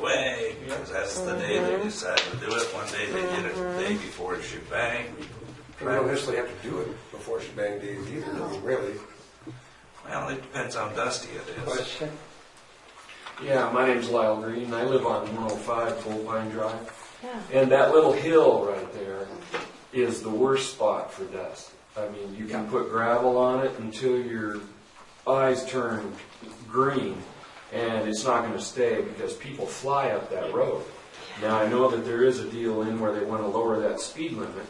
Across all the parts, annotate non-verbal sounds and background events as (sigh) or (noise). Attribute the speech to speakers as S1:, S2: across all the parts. S1: way, because that's the day they decide to do it. One day they did it the day before shebang.
S2: We don't necessarily have to do it before shebang days either, I mean, really.
S1: Well, it depends how dusty it is.
S2: But
S3: Yeah, my name's Lyle Green. I live on 105 Full Pine Drive.
S4: Yeah.
S3: And that little hill right there is the worst spot for dust. I mean, you can put gravel on it until your eyes turn green, and it's not going to stay because people fly up that road. Now, I know that there is a deal in where they want to lower that speed limit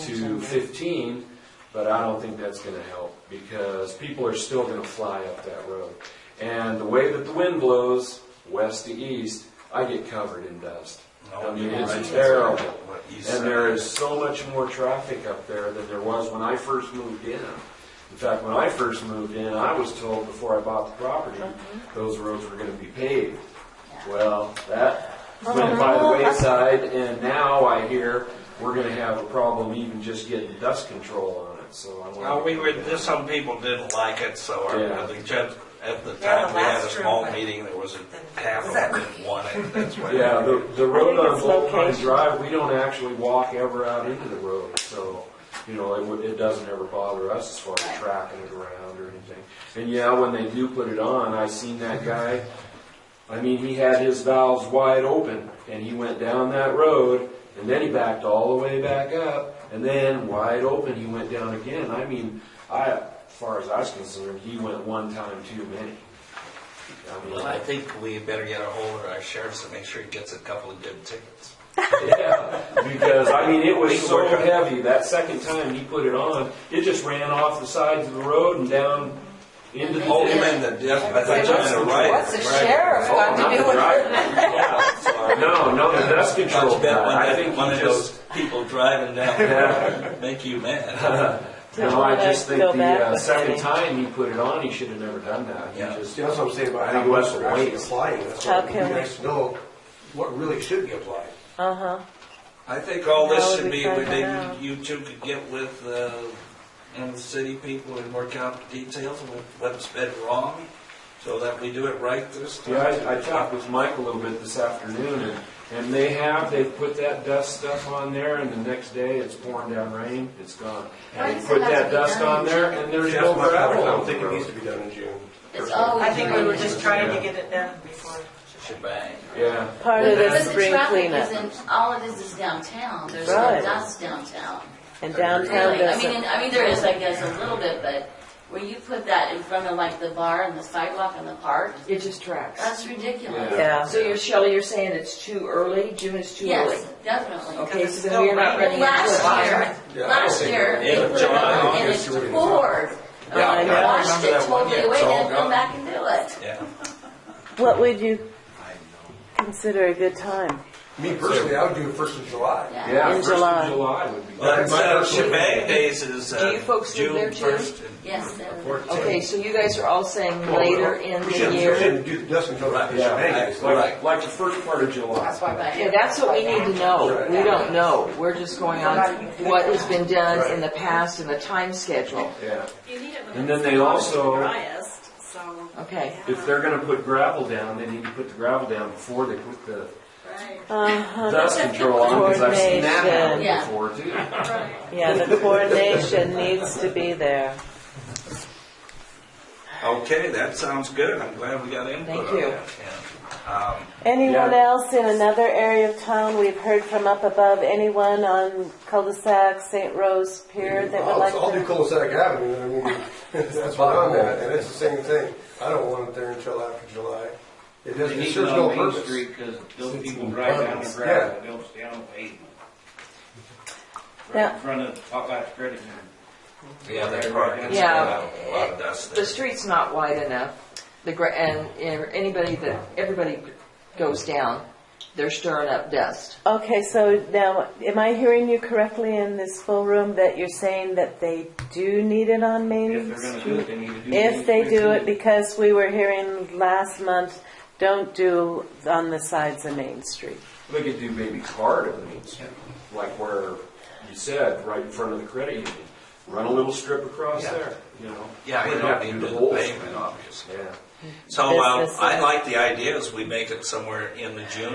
S3: to 15, but I don't think that's going to help because people are still going to fly up that road. And the way that the wind blows, west to east, I get covered in dust. I mean, it's terrible.
S1: What he said.
S3: And there is so much more traffic up there than there was when I first moved in. In fact, when I first moved in, I was told before I bought the property, those roads were gonna be paved. Well, that went by the wayside, and now I hear we're gonna have a problem even just getting dust control on it, so I
S1: Well,
S3: want.
S1: Uh, we were, there's some people didn't like it, so
S3: Yeah.
S1: our, the judge, at the
S4: Yeah,
S1: time, we had a
S4: last
S1: small
S4: room.
S1: meeting, there was a half of them didn't want it, that's why.
S3: Yeah, the, the road
S4: I think
S3: on
S4: it's
S3: Bull Pine
S4: location.
S3: Drive, we don't actually walk ever out into the road, so, you know, it, would- it doesn't ever bother us as far as tracking it around or anything. And yeah, when they do put it on, I seen that guy, I mean, he had his valves wide open, and he went down that road, and then he backed all the way back up, and then wide open, he went down again. I mean, I, as far as I was concerned, he went one time too many. I mean,
S1: (laughs) Well, I think we better get a hold of our sheriffs and make sure he gets a couple of good tickets.
S3: Yeah, because I mean, it was so
S1: Work on it.
S3: heavy, that second time he put it on, it just ran off the sides of the road and down into the.
S1: Oh, you mean the, I thought you meant a rider.
S4: What's the sheriff got
S3: not
S4: to
S3: the
S4: do with
S3: driver. Yeah,
S4: it?
S3: No, no, the dust control
S1: Much better
S3: guy,
S1: when
S3: I
S1: that-
S3: think
S1: one
S3: he
S1: of
S3: just-
S1: those people driving down there make you mad.
S3: No, I just think
S4: Feel
S3: the
S4: bad
S3: uh,
S4: with
S3: second
S4: me.
S3: time he put it on, he should have never done that. He
S1: Yeah.
S3: just-
S2: See, that's what I'm saying about
S3: I
S2: how
S3: think it
S2: much
S3: was
S2: we're
S3: the
S2: actually
S3: weight.
S2: applying, that's what
S4: How
S2: it'd
S4: can
S2: be
S4: we-
S2: nice to know what really should be applied.
S4: Uh-huh.
S1: I think all
S4: How
S1: this
S4: would
S1: should
S4: we
S1: be, we
S4: find that
S1: maybe
S4: out?
S1: you two could get with, uh, and the city people and work out the details of what's been wrong, so that we do it right this time.
S3: Yeah, I, I talked with Mike a little bit this afternoon, and, and they have, they've put that dust stuff on there, and the next day it's pouring down rain, it's gone.
S5: Why
S3: And
S5: does
S3: they
S5: it
S3: put
S5: have to
S3: that
S5: be
S3: dust
S5: done
S3: on
S5: in
S3: there,
S5: June?
S3: and there's
S2: That's
S3: no
S2: my- I
S3: gravel.
S2: don't think it needs to be done in June.
S5: It's always.
S6: I think we were just trying to
S3: Yeah.
S6: get it done before.
S1: Shebang.
S3: Yeah.
S4: Part of the
S5: Because the
S4: spring
S5: traffic
S4: cleanup
S5: is in, all it is is downtown, there's
S4: Right.
S5: no dust downtown,
S4: and downtown
S5: really. I mean,
S4: doesn't.
S5: and- I mean, there is, I guess, a little bit, but where you put that in front of like the bar and the sidewalk and the park,
S6: It just tracks.
S5: that's ridiculous.
S4: Yeah.
S6: So you're, Shelley, you're saying it's too early, June is too early?
S5: Yes, definitely.
S6: Okay,
S5: Well,
S6: so then we're not ready. to
S5: Last
S6: do it.
S5: year,
S2: Yeah, I
S5: last
S2: think-
S5: year, they
S1: Yeah,
S5: put it
S1: July,
S5: up and
S2: August,
S5: it's
S2: you would've-
S5: poured.
S1: Yeah,
S4: I
S5: They
S4: know.
S5: washed
S1: remember
S5: it
S1: that one,
S5: totally
S1: yeah,
S5: away,
S1: it's all
S5: then
S1: gone.
S5: come back and do it.
S1: Yeah.
S4: What would you consider a good time?
S2: Me personally, I would do it first of July.
S3: Yeah,
S4: In
S3: first of
S4: July.
S3: July would be.
S1: Well,
S3: good.
S1: that's, uh, shebang days is,
S6: Do you
S1: uh,
S6: folks live
S1: June
S6: there too?
S1: first.
S5: Yes, that would-
S6: Okay, so you guys are all saying
S2: Well,
S6: later in
S2: we
S6: the
S2: shouldn't- We
S6: year?
S2: shouldn't do the dust until after
S3: Yeah,
S2: shebang. days.
S3: like, like the first part of July.
S6: Yeah, that's what we need to know. We don't know. We're just going on what has been done in the past and the time schedule.
S3: Yeah.
S7: You need it when
S3: And
S7: it's
S3: then they also-
S7: driest, so.
S6: Okay.
S3: If they're gonna put gravel down, they need to put the gravel down before they put the
S7: Right,
S4: Uh-huh.
S3: dust control on, because I've seen that happen
S5: Coordination.
S3: before too.
S7: right.
S4: Yeah, the
S6: (laughs)
S4: coordination needs to be there.
S1: Okay, that sounds good. I'm glad we got input
S6: Thank
S1: on
S6: you.
S1: that. yeah. Um,
S4: Anyone
S3: Yeah.
S4: else in another area of town we've heard from up above? Anyone on cul-de-sac, St. Rose Pier that would
S2: I'll,
S4: like
S2: I'll do
S4: to?
S2: cul-de-sac avenue, I mean, (laughs) that's what I'm at, and it's the same thing. I don't want it there until after July. It
S8: They
S2: doesn't, it
S8: need
S2: serves
S8: it
S2: no
S8: on Main
S2: purpose.
S8: Street, because those people drive down the gravel, they'll stay on the pavement. Right
S4: Yeah.
S8: in front of Popeye's Credit Union.
S1: yeah, that park is,
S6: Yeah.
S1: uh, a lot of dust
S6: The
S1: there.
S6: street's not wide enough. The, gra- and, and anybody that, everybody goes down, they're stirring up dust.
S4: Okay, so now, am I hearing you correctly in this full room that you're saying that they do need it on
S8: If
S4: Main
S8: they're gonna do it,
S4: Street?
S8: they need to do it.
S4: If they do it, because we were hearing last month, don't do on the sides of Main Street.
S3: We could do maybe part of the Main Street, like where you said, right in front of the credit union. Run a little strip across
S1: Yeah.
S3: there, you know?
S1: Yeah, you
S3: Wouldn't
S1: don't
S3: have to
S1: need
S3: do
S1: the
S3: whole
S1: pavement,
S3: street.
S1: obviously.
S3: Yeah,
S1: So uh,
S4: Business.
S1: I like the idea is we make it somewhere in the June